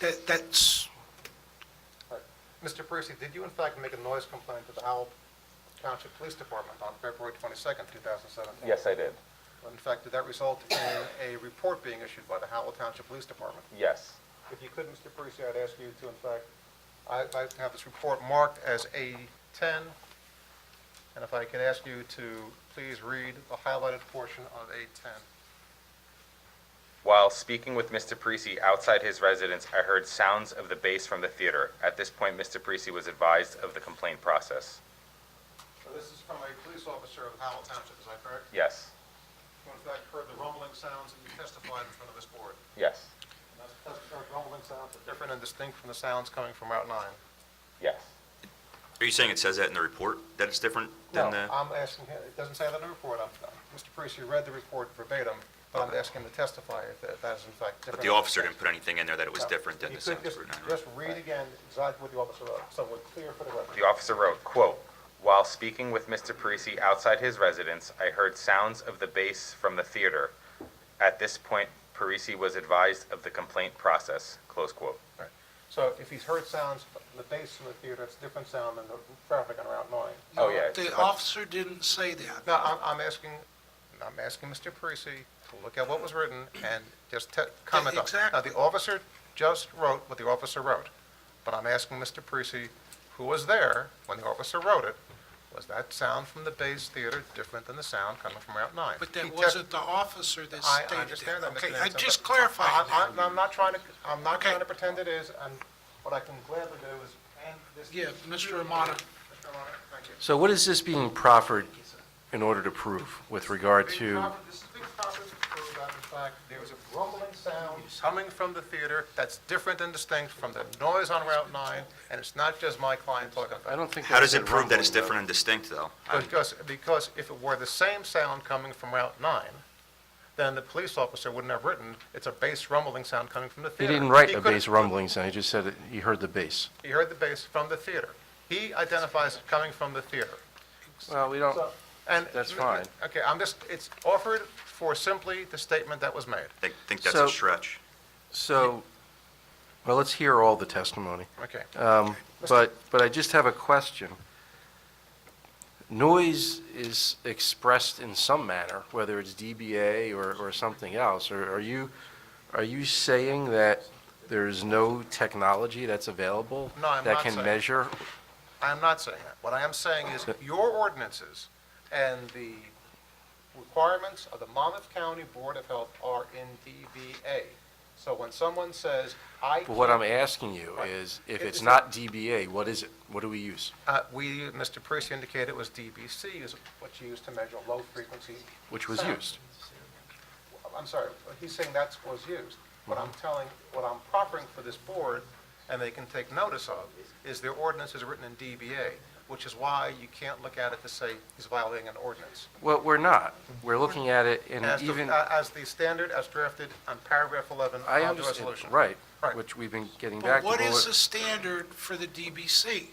That, that's, Mr. Parisi, did you in fact make a noise complaint to the Howell Township Police Department on February 22nd, 2017? Yes, I did. In fact, did that result in a report being issued by the Howell Township Police Department? Yes. If you could, Mr. Parisi, I'd ask you to, in fact, I I have this report marked as A10, and if I can ask you to please read the highlighted portion of A10. While speaking with Mr. Parisi outside his residence, I heard sounds of the bass from the theater. At this point, Mr. Parisi was advised of the complaint process. So this is from a police officer of Howell Township, is that correct? Yes. Who in fact heard the rumbling sounds and you testified in front of this board? Yes. And those test- those rumbling sounds are different and distinct from the sounds coming from Route 9? Yes. Are you saying it says that in the report, that it's different than the? I'm asking, him- it doesn't say that in the report. I'm- uh, Mr. Parisi read the report verbatim, but I'm asking him to testify if that that is in fact different. But the officer didn't put anything in there that it was different than You the could sounds just- were done, right? Just read again exactly what the officer wrote, so we're clear for the record. The officer wrote, quote, "While speaking with Mr. Parisi outside his residence, I heard sounds of the bass from the theater. At this point, Parisi was advised of the complaint process." Close quote. So if he's heard sounds, the bass from the theater, it's a different sound than the traffic on Route 9. Oh, yeah. the officer didn't say that. No, I'm, I'm asking, I'm asking Mr. Parisi to look at what was written and just te- comment on. it. Now, Exactly. the officer just wrote what the officer wrote, but I'm asking Mr. Parisi, who was there when the officer wrote it, was that sound from the Bayes Theater different than the sound coming from Route 9? But He that te- wasn't the officer that I- stated that. I understand that, Mr. Okay, Nansen. I but just clarified I- that. I- I'm not trying to, I'm not Okay. trying to pretend it is, and what I can gladly do is end this. Yeah, Mr. Amata. Mr. Armato, thank you. So what is this being proffered in order to prove with regard Big to, conference- This is a big conference to prove that, in fact, there was a rumbling sound coming from the theater that's different and distinct from the noise on Route 9, and it's not just my client talking I about it. don't think. How does it that's prove that it's rumbling, different and distinct, though? Because, because if it were the same sound coming from Route 9, then the police officer wouldn't have written, it's a bass rumbling sound coming from the though. He theater. didn't write a could've- bass rumbling sound, he just said that he heard the bass. He heard the bass from the theater. He identifies it coming from the theater. Well, we don't, So, and. That's fine. Okay, I'm just, it's offered for simply the statement that was made. I think- think that's So- a stretch. so, well, let's hear all the testimony. Okay. Um, But, but I just have a question. Noise is expressed in some manner, whether it's DBA or, or something else. Are are you, are you saying that there's no technology that's available? No, I'm not That can saying- measure I am not saying that. What I am saying is your ordinances and the requirements of the Monmouth County Board of Health are in DBA. So when someone says, I, But what I'm asking you is, if it's not DBA, what is it? What do we use? uh, we, Mr. Parisi indicated it was DBC is what's used to measure low frequency. Which was sound. used? I'm sorry, he's saying that's was used. What I'm Mm-hmm. telling, what I'm proffering for this board, and they can take notice of, is their ordinance is written in DBA, which is why you can't look at it to say he's violating an ordinance. Well, we're not. We're looking at it in As even, the, uh, as the standard as drafted on paragraph 11 I of the understand, resolution. right, Right. which we've been getting But back to. what but is what- the standard for the DBC?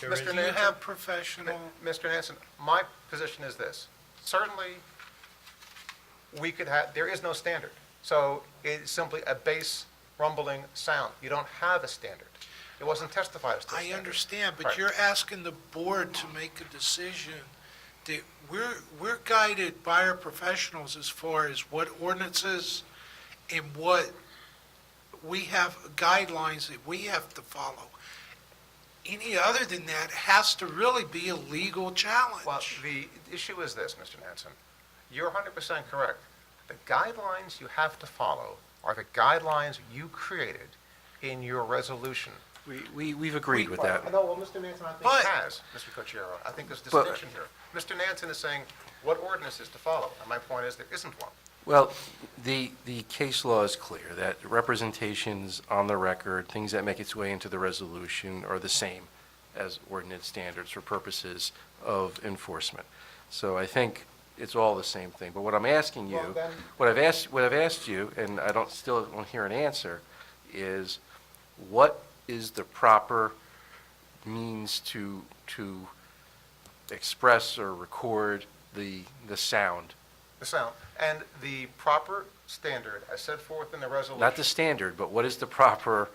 Do Mr. you Nansen, have professional? Mr. Nansen, my position is this. Certainly, we could have, there is no standard. So it's simply a bass rumbling sound. You don't have a standard. It wasn't testified as to a I standard. understand, but Right. you're asking the board to make a decision that we're, we're guided by our professionals as far as what ordinances and what, we have guidelines that we have to follow. Any other than that has to really be a legal Well, challenge. the issue is this, Mr. Nansen. You're 100% correct. The guidelines you have to follow are the guidelines you created in your resolution. We, we, we've agreed with that. No, well, Mr. Nansen, I think But- has, Mr. Cochero. I think there's a But- distinction here. Mr. Nansen is saying what ordinance is to follow, and my point is there isn't one. Well, the, the case law is clear that representations on the record, things that make its way into the resolution are the same as ordinance standards for purposes of enforcement. So I think it's all the same thing. But what I'm asking Well, you, then- what I've asked, what I've asked you, and I don't, still don't hear an answer, is what is the proper means to, to express or record the, the sound the sound, and the proper standard as set forth in the resolution. Not the standard, but what is the proper